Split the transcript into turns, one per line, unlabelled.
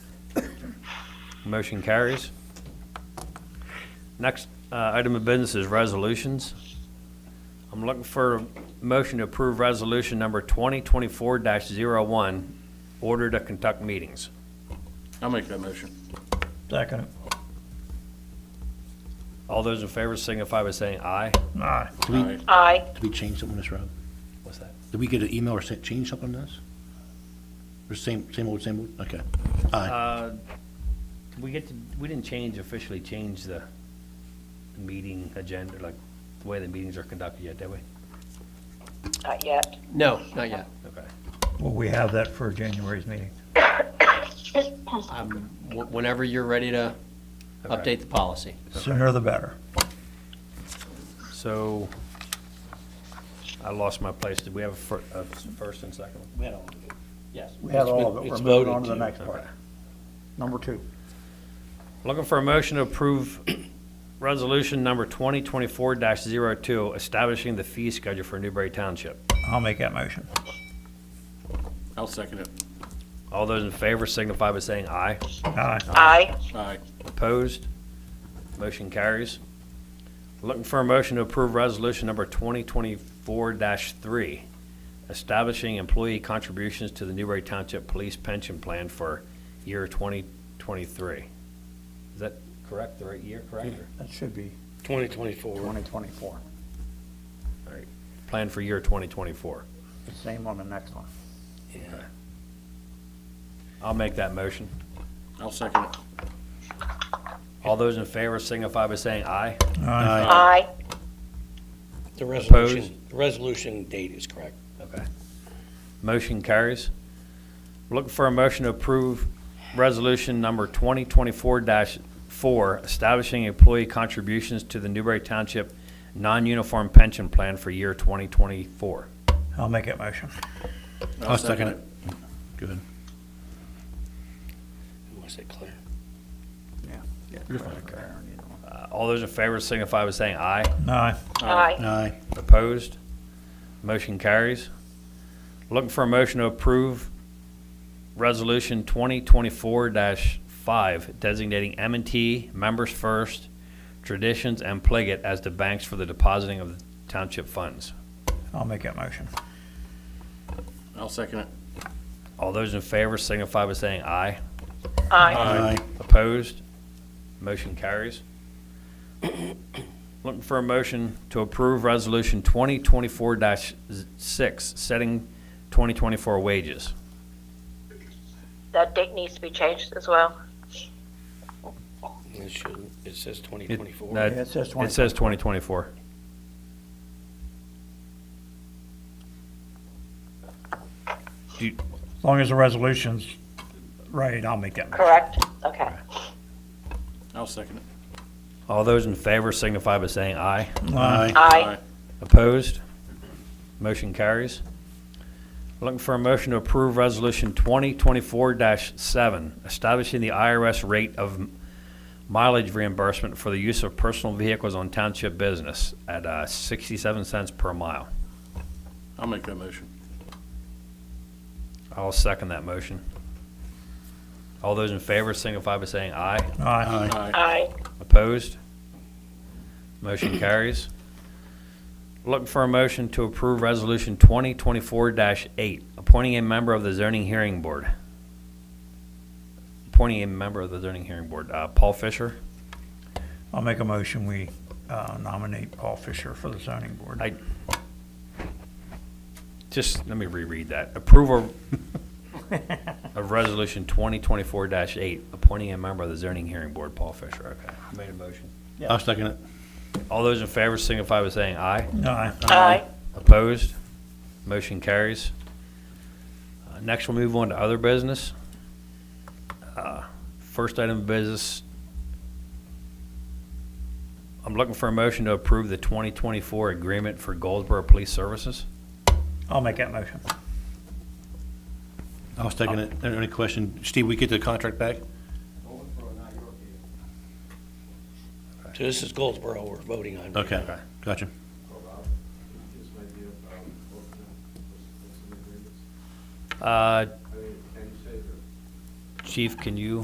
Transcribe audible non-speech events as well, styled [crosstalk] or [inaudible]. Motion carries. Next uh, item of business is resolutions. I'm looking for a motion to approve resolution number 2024-01, order to conduct meetings.
I'll make that motion.
Second.
All those in favor signify by saying aye.
Aye.
Did we,
Aye.
Aye.
did we change something on this, Rob?
What's that?
Did we get an email or sent, change something on this? Or same, same old, same old? Okay. Aye.
We get to, we didn't change, officially change the meeting agenda, like the way the meetings are conducted yet, did we?
Not yet.
No, not yet.
Okay.
Will we have that for January's meeting?
Um, wh- Whenever you're ready to
Okay.
update the policy.
Sooner the better.
So I lost my place. Did we have a fir- a first and second? one?
Yes.
We have all of it. We're moving on to the next
Okay.
part. Number two.
Looking for a motion to approve [clears throat] resolution number 2024-02, establishing the fee schedule for Newberry Township.
I'll make that motion.
I'll second it.
All those in favor signify by saying aye.
Aye.
Aye.
Aye.
Opposed? Motion carries. Looking for a motion to approve resolution number 2024-3, establishing employee contributions to the Newberry Township Police Pension Plan for year 2023. Is that correct, the right year, correct? or-
That should be
2024.
2024.
Plan for year 2024.
Same on the next one.
I'll make that motion.
I'll second it.
All those in favor signify by saying aye.
Aye.
Aye.
The resolution, the resolution date is correct.
Okay. Motion carries. Looking for a motion to approve resolution number 2024-4, establishing employee contributions to the Newberry Township Non-Uniform Pension Plan for year 2024.
I'll make that motion.
I'll second it. Good.
Was it clear?
Uh, All those in favor signify by saying aye.
Aye.
Aye.
Aye.
Opposed? Motion carries. Looking for a motion to approve Resolution 2024-5 designating m and T Members First, Traditions, and Pliget as the banks for the depositing of the township funds.
I'll make that motion.
I'll second it.
All those in favor signify by saying aye.
Aye.
Aye.
Opposed? Motion carries. Looking for a motion to approve Resolution 2024-6, setting 2024 wages.
That date needs to be changed as well.
It should, it says
It-
2024.
no,
Yeah, it says
It says 2024.
As long as the resolution's right, I'll make that motion.
Correct? Okay.
I'll second it.
All those in favor signify by saying aye.
Aye.
Aye.
Opposed? Motion carries. Looking for a motion to approve Resolution 2024-7, establishing the IRS rate of mileage reimbursement for the use of personal vehicles on township business at uh, 67 cents per mile.
I'll make that motion.
I'll second that motion. All those in favor signify by saying aye.
Aye.
Aye.
Aye.
Opposed? Motion [coughs] carries. Looking for a motion to approve Resolution 2024-8, appointing a member of the zoning hearing board. Appointing a member of the zoning hearing board. Uh, Paul Fisher?
I'll make a motion. We uh, nominate Paul Fisher for the zoning board.
I, just, let me reread that. Approval of Resolution 2024-8, appointing a member of the zoning hearing board. Paul Fisher, okay. Made a motion.
I'll second it.
All those in favor signify by saying aye.
Aye.
Aye.
Opposed? Motion carries. Uh, Next, we'll move on to other business. Uh, First item of business, I'm looking for a motion to approve the 2024 agreement for Goldsboro Police Services.
I'll make that motion.
I'll second it. Are there any question? Steve, we get the contract back?
So this is Goldsboro we're voting on.
Okay. Gotcha.
Uh, Chief, can you